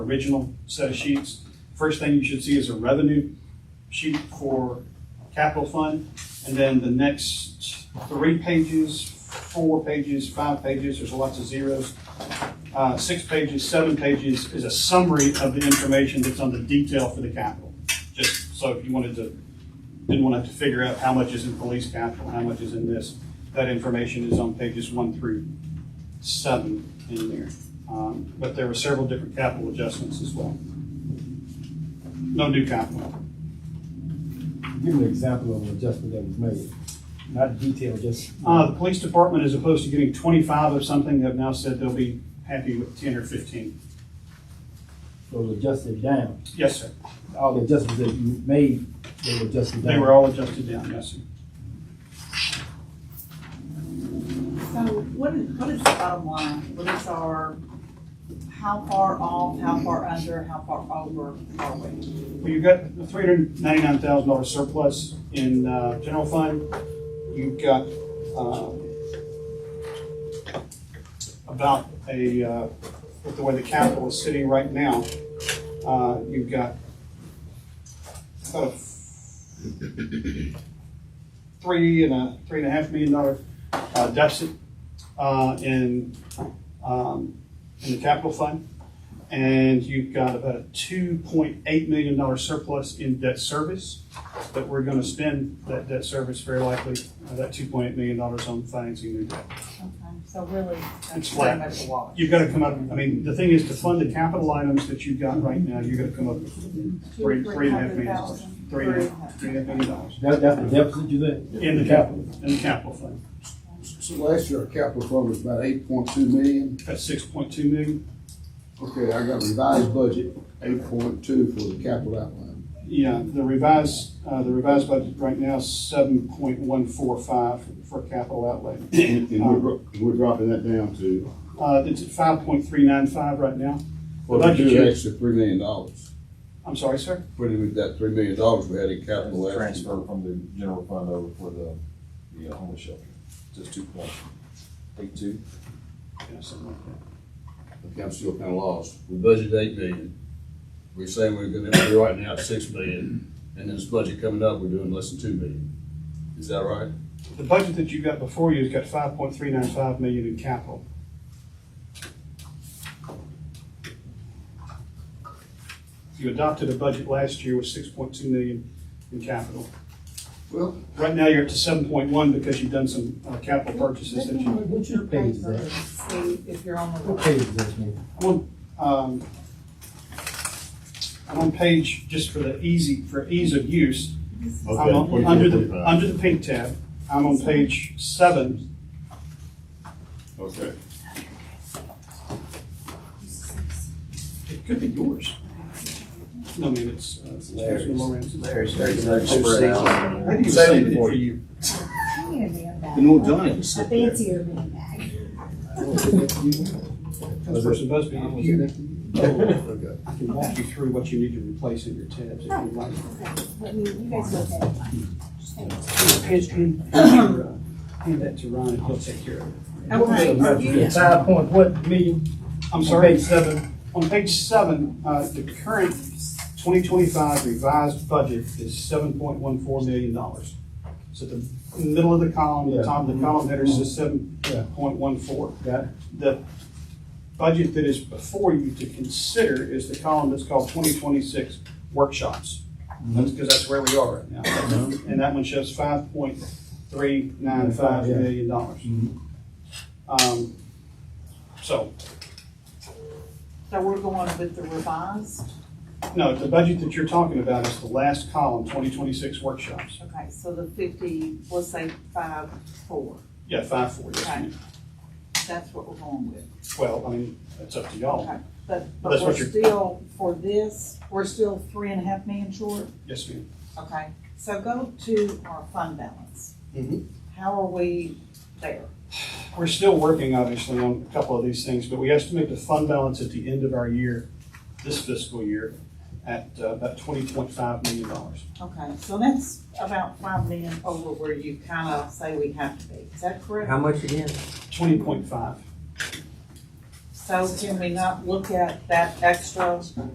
original set of sheets. First thing you should see is a revenue sheet for capital fund, and then the next three pages, four pages, five pages, there's lots of zeros. Uh, six pages, seven pages is a summary of the information that's on the detail for the capital. Just so if you wanted to, didn't want to have to figure out how much is in police capital, how much is in this, that information is on pages one through seven in there. Um, But there were several different capital adjustments as well. No new capital. Give me an example of an adjustment that was made, not detail, just. Uh, The police department, as opposed to getting 25 of something, have now said they'll be happy with 10 or 15. So it adjusted down, Yes, sir. all the adjustments that you made, they were adjusted down. They were all adjusted down, yes, sir. So what is, what is the bottom line? What is our, how far off, how far under, how far over are we? Well, you've got a three hundred ninety-nine thousand dollar surplus in, uh, general fund. You've got, um, about a, uh, with the way the capital is sitting right now, uh, you've got about a three and a, three and a half million dollar uh, deficit, uh, in, um, in the capital fund. And you've got about a two point eight million dollar surplus in debt service, but we're gonna spend that debt service very likely, uh, that two point eight million dollars on financing new debt. Okay, So really, It's that's flat. pretty much a wash. You've gotta come up, I mean, the thing is, to fund the capital items that you've got right now, you're gonna come up with three, three and a half million dollars. Three and a half, three and a half million dollars That, that's the deficit you said? in the capital, in the capital fund. So last year, our capital fund was about eight point two million. That's six point two million, Okay, I got revised budget, eight point two for the capital outline. yeah, the revised, uh, the revised budget right now, seven point one four five for capital outlay. And and we're, dro- we're dropping that down to, Uh, it's at five point three nine five right now. The well, we budget, do you- extra three million dollars. I'm sorry, sir. Putting with that three million dollars we had in capital last year. Transfer from the general fund over for the, the homeless shelter, just two point eight two. Yeah, something like that. Okay, I'm still kinda lost. We budgeted eight million. We're saying we're gonna be writing out six million, and then this budget coming up, we're doing less than two million. Is that right? The budget that you've got before you has got five point three nine five million in capital. You adopted a budget last year with six point two million in capital. Well, Right now, you're up to seven point one because you've done some uh, capital purchases that you, What's your page is that? See if you're on the. What page is that, man? I'm on, um, I'm on page, just for the easy, for ease of use, I'm on, under the, under the pink tab, I'm on page seven, Okay. it could be yours. No, I mean, it's, uh, it's Larry's. Councilman Lawrence. There's, I didn't even Save save it it for for you. You know, Johnny was A sitting there. fancier man bag. Councilperson Busby, if you, Okay. I can walk you through what you need to replace in your tabs if you'd like. Let me, you guys look at it. Hand- hand- hand your, uh, hand that to Ron and he'll take care of it. Okay, are you- Five point what million? I'm sorry, seven, on page seven, uh, the current twenty twenty-five revised budget is seven point one four million dollars. So the middle of the column, the Yeah. Mm-hmm. top of the column header says seven Yeah. point one four. Got it? The budget that is before you to consider is the column that's called twenty twenty-six workshops. Mm-hmm. That's because that's where we are right now. And that one shows five point three nine five Yeah. million dollars. Mhm. Um, so, So we're going with the revised? No, the budget that you're talking about is the last column, 2026 workshops. Okay, so the fifty, let's say five, four, Yeah, five, four, yes, Okay. ma'am. that's what we're going with. Well, I mean, that's up to y'all. Okay, But, but That's we're what you're- still, for this, we're still three and a half million short? Yes, ma'am. Okay, so go to our fund balance. How are we there? We're still working, obviously, on a couple of these things, but we estimate the fund balance at the end of our year, this fiscal year, at uh, about $20.5 million. Okay, so that's about five million over where you kind of say we have to be, is that correct? How much again? 20.5. So can we not look at that extra